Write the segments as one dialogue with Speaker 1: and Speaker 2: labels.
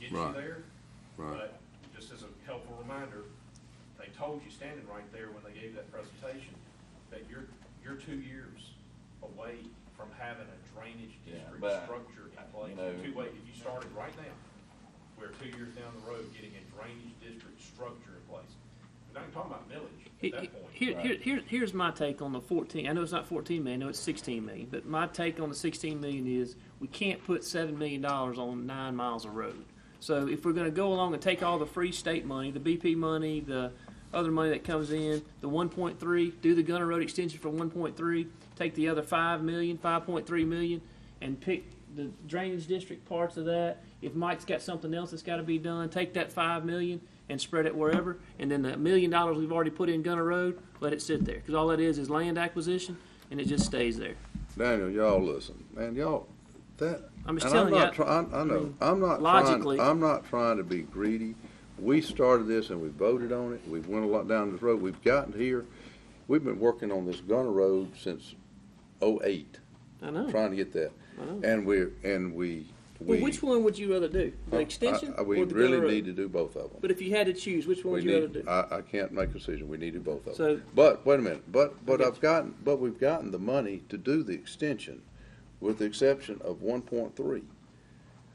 Speaker 1: issue
Speaker 2: Right.
Speaker 1: there.
Speaker 2: Right,
Speaker 1: But just as a helpful reminder, they told you standing right there when they gave that presentation, that you're, you're two years away from having a drainage
Speaker 3: Yeah,
Speaker 1: district
Speaker 3: but,
Speaker 1: structure in place.
Speaker 3: you know-
Speaker 1: Two way, if you started right now, we're two years down the road getting a drainage district structure in place. We're not even talking about millage at
Speaker 4: He-
Speaker 1: that
Speaker 4: he-
Speaker 1: point.
Speaker 4: Here,
Speaker 3: Right.
Speaker 4: here, here, here's my take on the 14. I know it's not 14 million. I know it's 16 million. But my take on the 16 million is we can't put seven million dollars on nine miles of road. So if we're going to go along and take all the free state money, the BP money, the other money that comes in, the 1.3, do the Gunner Road extension for 1.3, take the other 5 million, 5.3 million, and pick the drainage district parts of that. If Mike's got something else that's got to be done, take that 5 million and spread it wherever. And then the million dollars we've already put in Gunner Road, let it sit there. Because all that is is land acquisition, and it just stays there.
Speaker 2: Daniel, y'all listen, man, y'all, that,
Speaker 4: I'm just
Speaker 2: and I'm
Speaker 4: telling
Speaker 2: not,
Speaker 4: you.
Speaker 2: try- I, I know,
Speaker 4: mean,
Speaker 2: I'm not
Speaker 4: logically-
Speaker 2: trying, I'm not trying to be greedy. We started this and we voted on it, we went a lot down this road, we've gotten here. We've been working on this Gunner Road since oh-eight,
Speaker 4: I know.
Speaker 2: trying to get that. And we're, and we, we.
Speaker 4: Oh. Well, which one would you rather do? The
Speaker 2: I-
Speaker 4: extension
Speaker 2: I- Uh, We
Speaker 4: or the
Speaker 2: really
Speaker 4: Gunner Road?
Speaker 2: need to do both of them.
Speaker 4: But if you had to choose, which one
Speaker 2: We
Speaker 4: would you rather
Speaker 2: need, uh,
Speaker 4: do?
Speaker 2: I, I can't make a decision, we needed both of
Speaker 4: So-
Speaker 2: them. But, wait a minute, but, but
Speaker 4: get
Speaker 2: I've gotten, but we've gotten the money to do the extension, with the exception of one point three.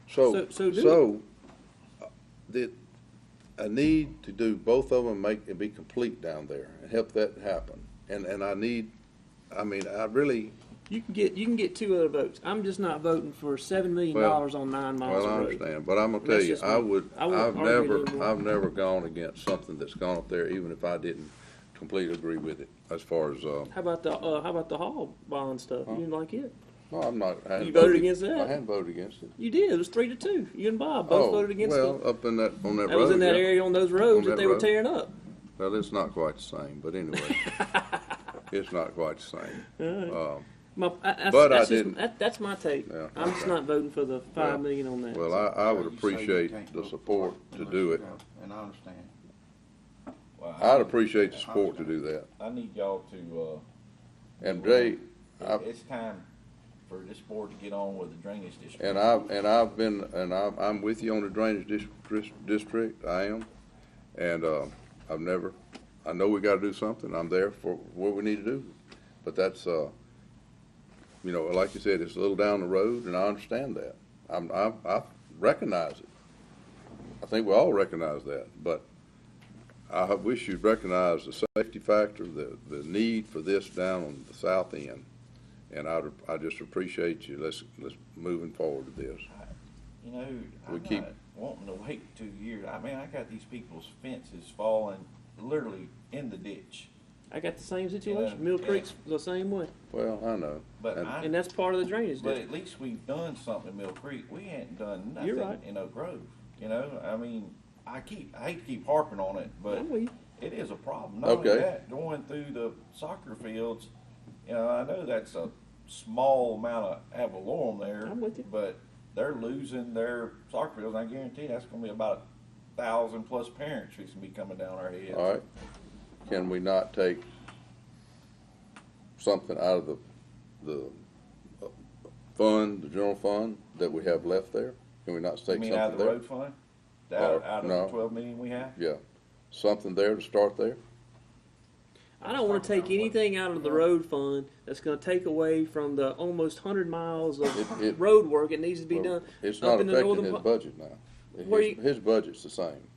Speaker 2: So,
Speaker 4: So- so do
Speaker 2: so, uh, the, I need to do both of them, make, and be complete down there, and help that happen. And, and I need, I mean, I really,
Speaker 4: You can get you can get two other votes. I'm just not voting for seven million dollars
Speaker 2: Well,
Speaker 4: on nine miles
Speaker 2: well, I
Speaker 4: of road.
Speaker 2: understand, but I'm gonna tell
Speaker 4: That's
Speaker 2: you,
Speaker 4: just
Speaker 2: I
Speaker 4: me.
Speaker 2: would,
Speaker 4: I wouldn't
Speaker 2: I've
Speaker 4: argue
Speaker 2: never,
Speaker 4: anymore.
Speaker 2: I've never gone against something that's gone up there, even if I didn't completely agree with it, as far as, uh,
Speaker 4: How about the uh, how about the hall bond stuff? You didn't like it.
Speaker 2: No, I'm not. I hadn't
Speaker 4: You voted against that?
Speaker 2: I hadn't voted against it.
Speaker 4: You did. It was three to two. You and Bob both
Speaker 2: Oh,
Speaker 4: voted against
Speaker 2: well,
Speaker 4: it.
Speaker 2: up in that on that
Speaker 4: That
Speaker 2: road.
Speaker 4: was in that
Speaker 2: yeah.
Speaker 4: area on those roads
Speaker 2: On
Speaker 4: that
Speaker 2: that
Speaker 4: they were
Speaker 2: road.
Speaker 4: tearing up.
Speaker 2: Well, it's not quite the same, but anyway, it's not quite the same. Um,
Speaker 4: My, I, that's,
Speaker 2: But I
Speaker 4: that's just-
Speaker 2: didn't.
Speaker 4: that- that's my take.
Speaker 2: Yeah,
Speaker 4: I'm just
Speaker 2: okay.
Speaker 4: not voting for the five
Speaker 2: Well,
Speaker 4: million on that.
Speaker 2: well, I, I would
Speaker 5: You say you can't
Speaker 2: appreciate the
Speaker 5: vote
Speaker 2: support
Speaker 5: for
Speaker 2: to
Speaker 5: unless
Speaker 2: do
Speaker 5: you
Speaker 2: it.
Speaker 5: go, And I understand.
Speaker 3: Well, I
Speaker 2: I'd
Speaker 3: need-
Speaker 2: appreciate the support to do that.
Speaker 3: I need y'all to,
Speaker 2: And Jay, I,
Speaker 3: uh, it's time for this board to get on with the drainage district.
Speaker 2: and I and I've been and I'm I'm with you on the drainage district. District, I am, and uh, I've never. I know we got to do something. I'm there for what we need to do, but that's uh, you know, like you said, it's a little down the road, and I understand that. I'm I, I recognize it. I think we all recognize that, but I wish you'd recognize the safety factor, the the need for this down on the south end. And I, I just appreciate you. Let's, let's moving forward with this.
Speaker 3: You know,
Speaker 2: We
Speaker 3: I'm
Speaker 2: keep-
Speaker 3: not wanting to wait two years. I mean, I got these people's fences falling literally in the ditch.
Speaker 4: I got the same situation.
Speaker 3: Yeah.
Speaker 4: Mill Creek's the same way,
Speaker 2: Well, I know.
Speaker 3: But
Speaker 2: And-
Speaker 3: I-
Speaker 4: and that's part of the drainage.
Speaker 3: But
Speaker 4: district.
Speaker 3: at least we've done something in Mill Creek. We ain't done
Speaker 4: You're
Speaker 3: nothing
Speaker 4: right.
Speaker 3: in Oak Grove. You know, I mean, I keep, I hate to keep harping on it, but
Speaker 4: I'm with you.
Speaker 3: it is a problem. Not only
Speaker 2: Okay.
Speaker 3: that, going through the soccer fields, you know, I know that's a small amount of avalorum there.
Speaker 4: I'm with you.
Speaker 3: But they're losing their soccer fields. I guarantee that's gonna be about a thousand plus parents who's gonna be coming down our heads.
Speaker 2: All right, can we not take something out of the, the uh, fund, the general fund that we have left there? Can we not
Speaker 3: I
Speaker 2: take
Speaker 3: mean, out
Speaker 2: something
Speaker 3: of the
Speaker 2: there?
Speaker 3: road fund, out,
Speaker 2: Uh,
Speaker 3: out of
Speaker 2: no.
Speaker 3: the twelve million we have.
Speaker 2: Yeah, something there to start there?
Speaker 4: I don't want to take anything out of the road fund that's going to take away from the almost hundred miles of
Speaker 2: It- it-
Speaker 4: road work that needs to be
Speaker 2: Well,
Speaker 4: done
Speaker 2: It's
Speaker 4: up
Speaker 2: not
Speaker 4: in the
Speaker 2: affecting
Speaker 4: northern.
Speaker 2: his
Speaker 4: part.
Speaker 2: budget now.
Speaker 4: Where you-
Speaker 2: His, his budget's the same.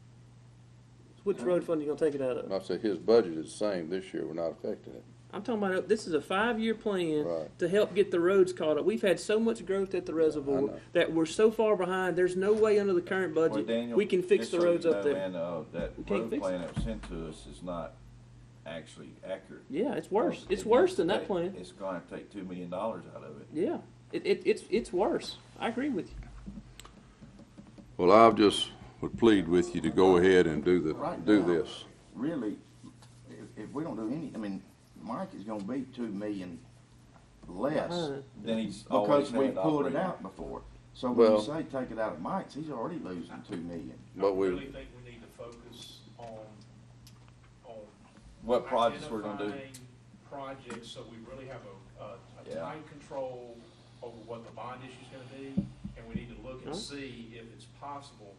Speaker 4: Which road fund are you going to take it out of?
Speaker 2: And I said, his budget is the same this year, we're not affecting it.
Speaker 4: I'm talking about this is a five-year plan
Speaker 2: Right.
Speaker 4: to help get the roads caught up. We've had so much growth at the reservoir
Speaker 2: know.
Speaker 4: that we're so far behind. There's no way under the current
Speaker 3: Well,
Speaker 4: budget
Speaker 3: Daniel,
Speaker 4: we can fix
Speaker 3: just
Speaker 4: the
Speaker 3: so you
Speaker 4: roads up
Speaker 3: know,
Speaker 4: there.
Speaker 3: man, uh, that
Speaker 4: can't
Speaker 3: road
Speaker 4: fix
Speaker 3: plan that was sent to us is not actually accurate.
Speaker 4: Yeah, it's worse.
Speaker 3: Because
Speaker 4: It's
Speaker 3: if
Speaker 4: worse
Speaker 3: you
Speaker 4: than that
Speaker 3: take-
Speaker 4: plan.
Speaker 3: It's gonna take two million dollars out of it.
Speaker 4: Yeah, it, it, it's it's worse. I agree with you.
Speaker 2: Well, I just would plead with you to go ahead and do the,
Speaker 5: Right
Speaker 2: do
Speaker 5: now,
Speaker 2: this.
Speaker 5: Really, if, if we don't do any, I mean, Mike is gonna be two million less
Speaker 4: Uh,
Speaker 3: Then he's always
Speaker 5: because we
Speaker 3: had to
Speaker 5: pulled
Speaker 3: operate.
Speaker 5: it out before. So when
Speaker 2: Well-
Speaker 5: you say take it out of Mike's, he's already losing two million.
Speaker 2: But
Speaker 1: I
Speaker 2: we-
Speaker 1: really think we need to focus on, on.
Speaker 3: What projects we're gonna do.
Speaker 1: identifying Projects, so we really have a, a, a
Speaker 3: Yeah.
Speaker 1: time
Speaker 3: Hmm?
Speaker 1: control over what the bond issue's gonna be, and we need to look and
Speaker 4: Huh?
Speaker 1: see if it's possible